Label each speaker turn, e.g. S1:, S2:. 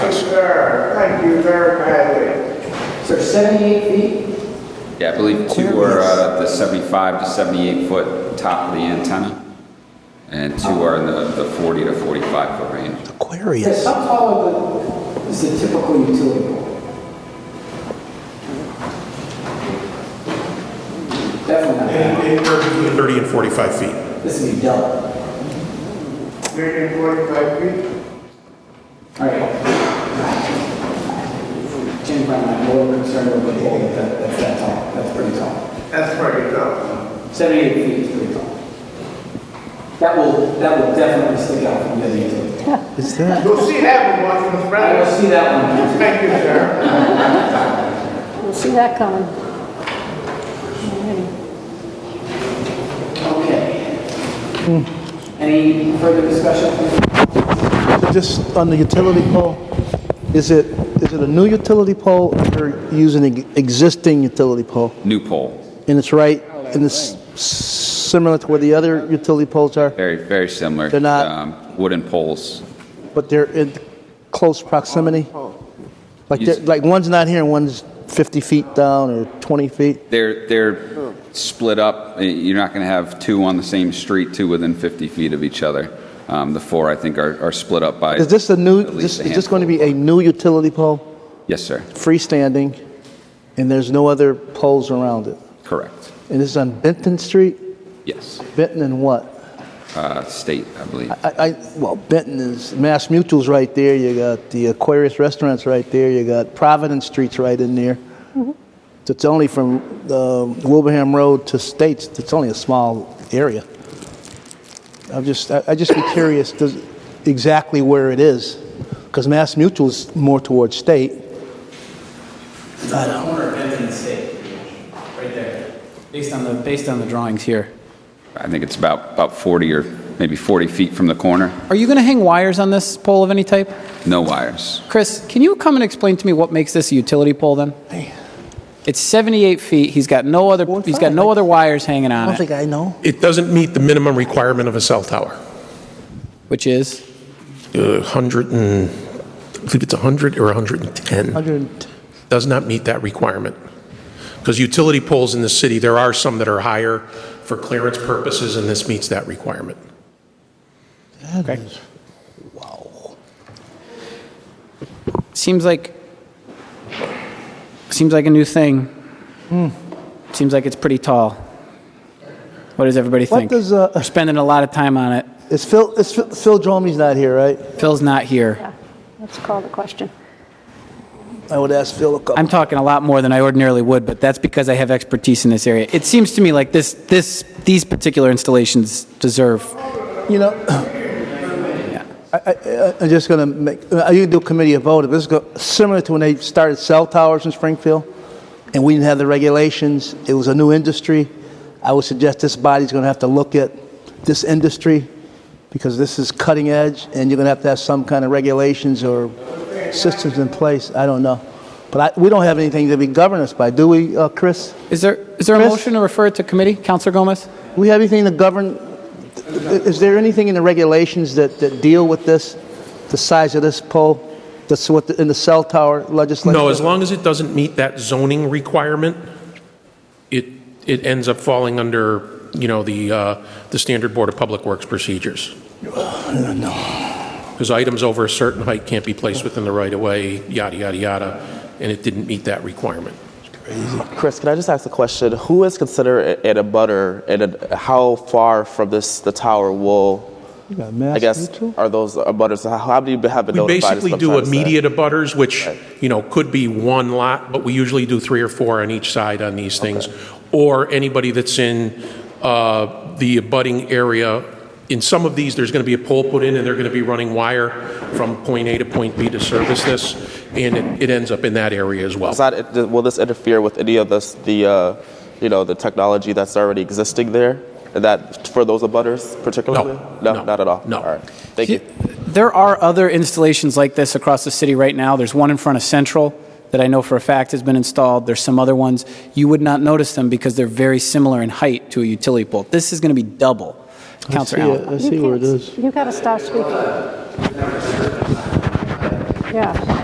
S1: sir. Thank you very kindly.
S2: So 78 feet?
S3: Yeah, I believe two are uh, the 75 to 78 foot top of the antenna, and two are in the the 40 to 45 foot range.
S2: Yes.
S4: Aquarius.
S2: How tall are the, is the typical utility pole? Definitely
S4: Between 30 and 45 feet.
S2: not, this would be double.
S1: Meeting 45 feet.
S2: All right. Jim, I'm a little concerned over the pole, but that- that's that tall, that's pretty tall.
S1: That's pretty tough.
S2: 78 feet is pretty tall. That will, that will definitely stick out from the other utility. pole.
S4: Is that?
S1: You'll see that one watching the
S2: I will
S1: front.
S2: see that one.
S1: Thank you, sir.
S5: Didn't see that coming. Alrighty.
S2: Okay. Any further discussion?
S4: Just on the utility pole, is it, is it a new utility pole or using an existing utility pole?
S3: New pole,
S4: And it's right, and it's similar to where the other utility poles are,
S3: very, very similar.
S4: They're not-
S3: um, Wooden poles.
S4: but they're in close proximity? Like, they're- like one's not here and one's 50 feet down or 20 feet?
S3: They're, they're split up. Uh, You're not going to have two on the same street, two within 50 feet of each other. Um, The four, I think, are, are split up by.
S4: Is this a new,
S3: At least
S4: this-
S3: a
S4: is this going to be a new utility pole,
S3: Yes, sir.
S4: freestanding, and there's no other poles around it?
S3: Correct.
S4: And this is on Benton Street?
S3: Yes.
S4: Benton and what?
S3: Uh, State, I believe.
S4: I, I, well, Benton is, Mass Mutual's right there, you got the Aquarius Restaurant's right there, you got Providence Street's right in there. Mm-hmm. So it's only from uh, Wilbraham Road to States, it's only a small area. I'm just, I, I just be curious, does, exactly where it is, because Mass Mutual's more towards State.
S6: It's the corner of Benton and State, right there, based on the, based on the drawings here.
S3: I think it's about, about 40 or maybe 40 feet from the corner.
S6: Are you going to hang wires on this pole of any type?
S3: No wires.
S6: Chris, can you come and explain to me what makes this a utility pole then? It's 78 feet, he's got no other,
S4: Well,
S6: he's got no other wires hanging
S4: I
S6: on
S4: don't think
S6: it,
S4: I know.
S7: It doesn't meet the minimum requirement of a cell tower.
S6: which is,
S7: Uh, 100 and, I believe it's 100 or 110.
S4: 100,
S7: Does not meet that requirement. Because utility poles in the city, there are some that are higher for clearance purposes, and this meets that requirement.
S6: seems like, seems like a new thing.
S4: Hmm.
S6: Seems like it's pretty tall. What does everybody
S4: What
S6: think?
S4: does, uh,
S6: We're spending a lot of time on it.
S4: it's Phil, it's Phil, Phil Dromey's not here, right?
S6: Phil's not here.
S5: Yeah, let's call the question.
S4: I would ask Phil a couple.
S6: I'm talking a lot more than I ordinarily would, but that's because I have expertise in this area. It seems to me like this, this, these particular installations deserve.
S4: You know, I, I, I- I'm just gonna make, I usually do a committee of vote, but this is go- similar to when they started cell towers in Springfield, and we didn't have the regulations, it was a new industry. I would suggest this body's gonna have to look at this industry, because this is cutting edge, and you're gonna have to have some kind of regulations or systems in place, I don't know. But I, we don't have anything to be governed us by, do we, uh, Chris?
S6: Is there, is there a
S4: Chris?
S6: motion to refer it to committee? Counselor Gomez?
S4: Do we have anything to govern, is there anything in the regulations that, that deal with this, the size of this pole? That's what, the- in the cell tower legislation?
S7: No, as long as it doesn't meet that zoning requirement, it, it ends up falling under, you know, the, uh, the standard Board of Public Works procedures. Because items over a certain height can't be placed within the right-of-way, yada, yada, yada, and it didn't meet that requirement.
S8: Chris, can I just ask a question? Who is considered a- an abutter, and a- how far from this the tower will?
S4: got Mass
S8: I guess
S4: Mutual?
S8: are those abutters? How, how do you have been
S7: We
S8: notified? is what
S7: basically
S8: I'm
S7: do
S8: trying to say.
S7: immediate abutters, which, you know, could be one lot, but we usually do three or four on each side on these things. Or anybody that's in uh, the abutting area. In some of these, there's going to be a pole put in, and they're going to be running wire from point A to point B to service this, and it- it ends up in that area as well.
S8: Is that, it- will this interfere with any of this, the, uh, you know, the technology that's already existing there? And That for those abutters particularly?
S7: no,
S8: not at all.
S7: no.
S8: All right. Thank you.
S6: There are other installations like this across the city right now. There's one in front of Central that I know for a fact has been installed. There's some other ones. You would not notice them because they're very similar in height to a utility pole. This is going to be double. Counselor Allen?
S4: I
S5: You can't- You gotta stop speaking. Yeah.